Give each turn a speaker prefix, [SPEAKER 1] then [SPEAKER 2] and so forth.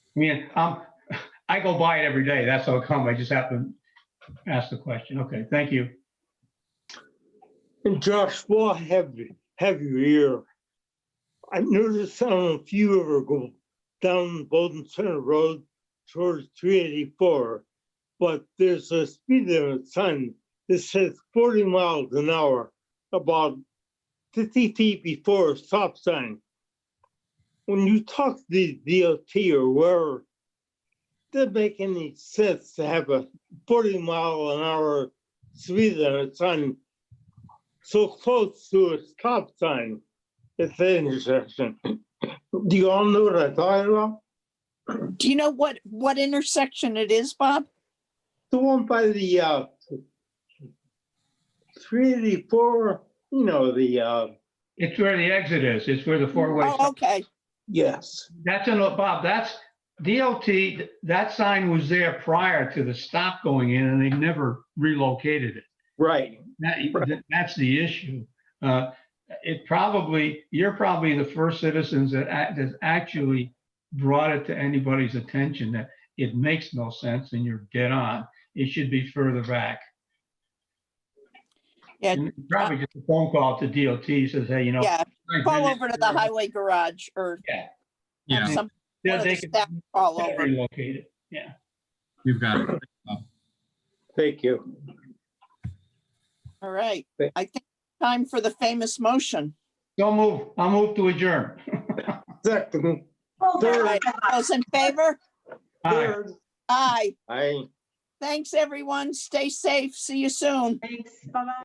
[SPEAKER 1] Yeah, um, I go by it every day. That's how come. I just happened to ask the question. Okay, thank you.
[SPEAKER 2] And Josh, while I have, have you here, I noticed on a few of her go down Bolton Center Road towards three eighty-four. But there's a speed limit sign that says forty miles an hour, about fifty feet before a stop sign. When you talk to the DOT or where, doesn't make any sense to have a forty mile an hour speed limit sign so close to a stop sign at the intersection. Do you all know what I thought about?
[SPEAKER 3] Do you know what, what intersection it is, Bob?
[SPEAKER 2] The one by the uh three eighty-four, you know, the uh,
[SPEAKER 1] It's where the exit is. It's where the four-way.
[SPEAKER 3] Oh, okay.
[SPEAKER 2] yes.
[SPEAKER 1] That's in, Bob, that's DOT, that sign was there prior to the stop going in and they never relocated it.
[SPEAKER 2] Right.
[SPEAKER 1] That, that's the issue. Uh, It probably, you're probably the first citizens that, act- that actually brought it to anybody's attention that it makes no sense and you're dead on. It should be further back.
[SPEAKER 3] Yeah.
[SPEAKER 1] And Probably just a phone call to DOT says, hey, you know.
[SPEAKER 3] Yeah,
[SPEAKER 1] I've been
[SPEAKER 3] call
[SPEAKER 1] in
[SPEAKER 3] over to the
[SPEAKER 1] there."
[SPEAKER 3] highway garage or have
[SPEAKER 4] Yeah,
[SPEAKER 3] some, one
[SPEAKER 1] Yeah,
[SPEAKER 3] of
[SPEAKER 1] they
[SPEAKER 3] the
[SPEAKER 1] could
[SPEAKER 3] staff call over.
[SPEAKER 1] relocate it. Yeah.
[SPEAKER 4] you've got it.
[SPEAKER 2] Thank you.
[SPEAKER 3] All right.
[SPEAKER 2] Thank-
[SPEAKER 3] I think time for the famous motion.
[SPEAKER 1] Don't move. I'll move to adjourn.
[SPEAKER 2] Second,
[SPEAKER 3] All
[SPEAKER 2] third,
[SPEAKER 3] right, Those in favor?
[SPEAKER 1] Aye.
[SPEAKER 2] third,
[SPEAKER 3] Aye.
[SPEAKER 2] I.
[SPEAKER 3] Thanks, everyone. Stay safe. See you soon.
[SPEAKER 5] Thanks, bye-bye.